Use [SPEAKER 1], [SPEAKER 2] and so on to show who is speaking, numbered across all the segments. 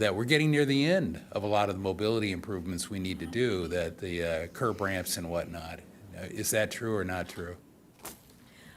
[SPEAKER 1] that we're getting near the end of a lot of the mobility improvements we need to do, that the uh, curb ramps and whatnot. Uh, Is that true or not true?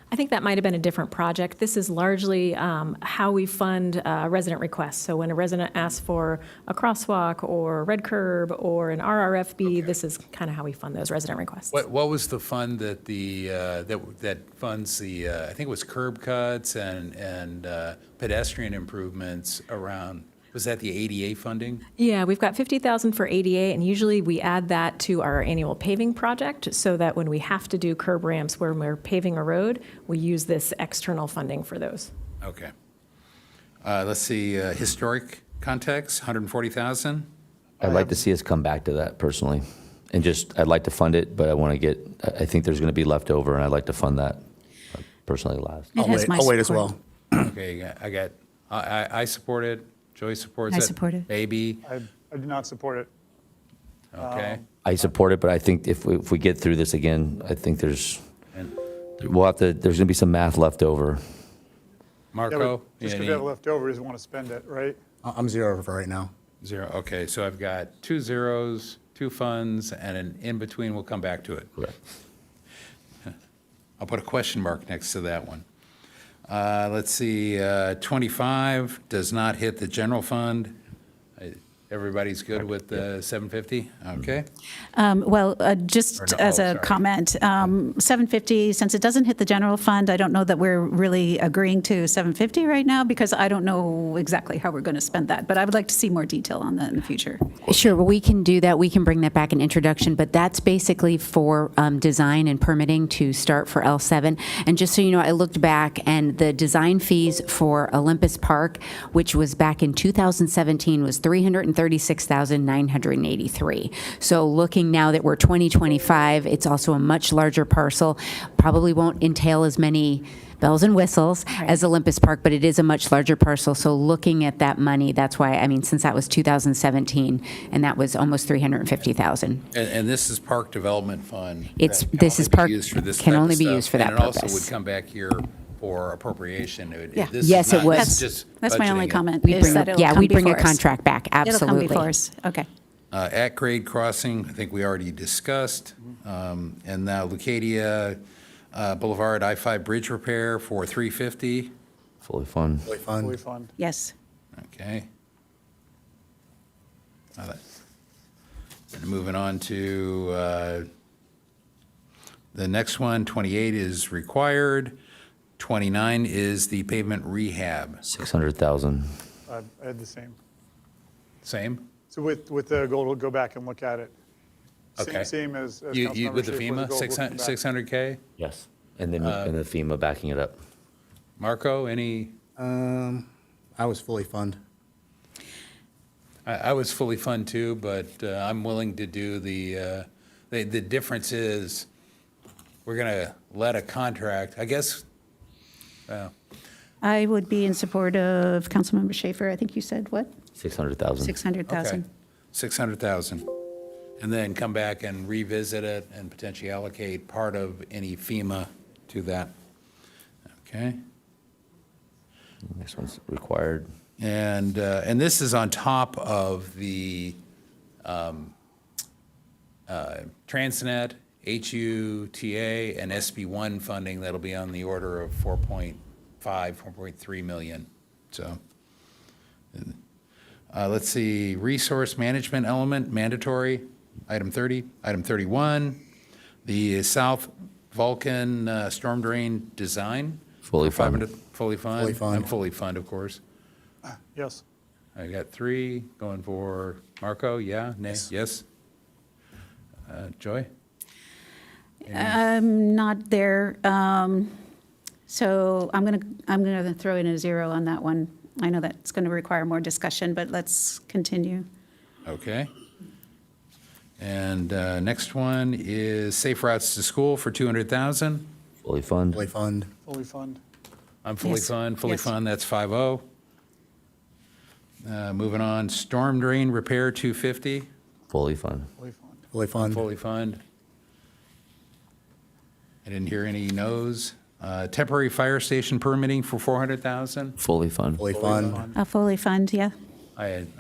[SPEAKER 2] I think that might have been a different project. This is largely um, how we fund uh, resident requests. So when a resident asks for a crosswalk or red curb or an RRFB, this is kind of how we fund those resident requests.
[SPEAKER 1] What, what was the fund that the, uh, that, that funds the, uh, I think it was curb cuts and, and uh, pedestrian improvements around, was that the ADA funding?
[SPEAKER 2] Yeah, we've got 50,000 for ADA, and usually we add that to our annual paving project so that when we have to do curb ramps where we're paving a road, we use this external funding for those.
[SPEAKER 1] Okay. Uh, Let's see, uh, historic context, 140,000?
[SPEAKER 3] I'd like to see us come back to that personally. And just, I'd like to fund it, but I want to get, I I think there's going to be leftover, and I'd like to fund that uh, personally last.
[SPEAKER 4] It
[SPEAKER 5] I'll
[SPEAKER 4] has
[SPEAKER 5] wait,
[SPEAKER 4] my
[SPEAKER 5] I'll wait as
[SPEAKER 4] support.
[SPEAKER 5] well.
[SPEAKER 1] Okay, I got, I, I- I support it. Joey supports it.
[SPEAKER 4] I support it.
[SPEAKER 1] Maybe,
[SPEAKER 6] I, I do not support it.
[SPEAKER 1] okay.
[SPEAKER 3] I support it, but I think if we, if we get through this again, I think there's,
[SPEAKER 1] And
[SPEAKER 3] we'll have to, there's going to be some math left over.
[SPEAKER 6] Yeah, but
[SPEAKER 1] Marco?
[SPEAKER 6] Just because
[SPEAKER 1] any-
[SPEAKER 6] we have left over, he doesn't want to spend it, right?
[SPEAKER 5] I- I'm zero for right now.
[SPEAKER 1] Zero, okay, so I've got two zeros, two funds, and an in-between, we'll come back to it. I'll put a question mark next to that one. Uh, Let's see, uh, 25 does not hit the general fund. I- Everybody's good with the 750?
[SPEAKER 6] Mm-hmm.
[SPEAKER 1] Okay,
[SPEAKER 4] Um, Well, uh,
[SPEAKER 1] Or
[SPEAKER 4] just
[SPEAKER 1] no,
[SPEAKER 4] as
[SPEAKER 1] oh,
[SPEAKER 4] a
[SPEAKER 1] sorry.
[SPEAKER 4] comment, um, 750, since it doesn't hit the general fund, I don't know that we're really agreeing to 750 right now because I don't know exactly how we're going to spend that. But I would like to see more detail on that in the future.
[SPEAKER 7] Sure, well, we can do that. We can bring that back in introduction, but that's basically for um, design and permitting to start for L7. And just so you know, I looked back, and the design fees for Olympus Park, which was back in 2017, was 336,983. So looking now that we're 2025, it's also a much larger parcel, probably won't entail as many bells and whistles as Olympus Park, but it is a much larger parcel. So looking at that money, that's why, I mean, since that was 2017, and that was almost 350,000.
[SPEAKER 1] and, and this is Park Development Fund.
[SPEAKER 7] It's-
[SPEAKER 1] that can
[SPEAKER 7] this
[SPEAKER 1] only
[SPEAKER 7] is
[SPEAKER 1] be
[SPEAKER 7] park-
[SPEAKER 1] used for this
[SPEAKER 7] can
[SPEAKER 1] type of
[SPEAKER 7] only be used
[SPEAKER 1] stuff,
[SPEAKER 7] for that
[SPEAKER 1] And it also would
[SPEAKER 7] purpose.
[SPEAKER 1] come back here for appropriation. It-
[SPEAKER 4] Yeah.
[SPEAKER 1] this is
[SPEAKER 7] Yes, it
[SPEAKER 1] not-
[SPEAKER 7] was.
[SPEAKER 1] this is just
[SPEAKER 4] That's my only
[SPEAKER 1] budgeting it.
[SPEAKER 4] comment,
[SPEAKER 7] We
[SPEAKER 4] is
[SPEAKER 7] bring,
[SPEAKER 4] that
[SPEAKER 7] a-
[SPEAKER 4] it'll
[SPEAKER 7] yeah,
[SPEAKER 4] come
[SPEAKER 7] we bring a
[SPEAKER 4] before us.
[SPEAKER 7] contract back, absolutely.
[SPEAKER 4] It'll come before us, okay.
[SPEAKER 1] Uh, At-grade crossing, I think we already discussed. Um, And now Lucadia uh, Boulevard I-5 bridge repair for 350,
[SPEAKER 3] Fully fund.
[SPEAKER 5] Fund.
[SPEAKER 6] Fully fund.
[SPEAKER 4] Yes.
[SPEAKER 1] okay. Now that- and Moving on to uh, the next one, 28 is required, 29 is the pavement rehab.
[SPEAKER 3] 600,000.
[SPEAKER 6] I I had the same.
[SPEAKER 1] Same?
[SPEAKER 6] So with, with the gold, we'll go back and look at it. Same-
[SPEAKER 1] Okay.
[SPEAKER 6] Same as. as
[SPEAKER 1] You- you-
[SPEAKER 6] Councilmember
[SPEAKER 1] With the
[SPEAKER 6] Schaefer,
[SPEAKER 1] FEMA,
[SPEAKER 6] gold, we'll
[SPEAKER 1] 600
[SPEAKER 6] come back.
[SPEAKER 1] 600K?
[SPEAKER 3] Yes. And then, and the FEMA backing it up.
[SPEAKER 1] Marco, any?
[SPEAKER 5] Um, I was fully fund.
[SPEAKER 1] I, I was fully fund too, but uh, I'm willing to do the, uh, the, the difference is, we're gonna let a contract, I guess,
[SPEAKER 4] I would be in support of Councilmember Schaefer, I think you said, what,
[SPEAKER 3] 600,000.
[SPEAKER 4] 600,000?
[SPEAKER 1] okay, 600,000. And then come back and revisit it and potentially allocate part of any FEMA to that. Okay?
[SPEAKER 3] Next one's required.
[SPEAKER 1] And, uh, and this is on top of the um, uh, Transnet, HUTA, and SB1 funding that'll be on the order of 4.5, 4.3 million. So, uh, let's see, resource management element mandatory, item 30. Item 31, the South Vulcan uh, storm drain design.
[SPEAKER 3] Fully
[SPEAKER 1] Five
[SPEAKER 3] funded.
[SPEAKER 1] hundred- Fully funded.
[SPEAKER 5] Fully funded.
[SPEAKER 1] I'm fully funded, of course.
[SPEAKER 6] Yes.
[SPEAKER 1] I got three going for Marco, yeah, nay, yes? Uh, Joy?
[SPEAKER 4] I'm not there. um, So I'm going to, I'm going to throw in a zero on that one. I know that's going to require more discussion, but let's continue.
[SPEAKER 1] Okay. And uh, next one is Safe Routes to School for 200,000.
[SPEAKER 3] Fully fund.
[SPEAKER 5] Fully fund.
[SPEAKER 6] Fully fund.
[SPEAKER 1] I'm fully
[SPEAKER 4] Yes,
[SPEAKER 1] fund, fully
[SPEAKER 4] yes.
[SPEAKER 1] fund, that's 5-0. Uh, Moving on, Storm Drain Repair 250,
[SPEAKER 3] Fully fund.
[SPEAKER 6] Fully fund.
[SPEAKER 5] Fully fund.
[SPEAKER 1] fully fund. I didn't hear any no's. Uh, Temporary Fire Station Permitting for 400,000.
[SPEAKER 3] Fully fund.
[SPEAKER 5] Fully fund.
[SPEAKER 4] A fully fund, yeah?
[SPEAKER 1] I had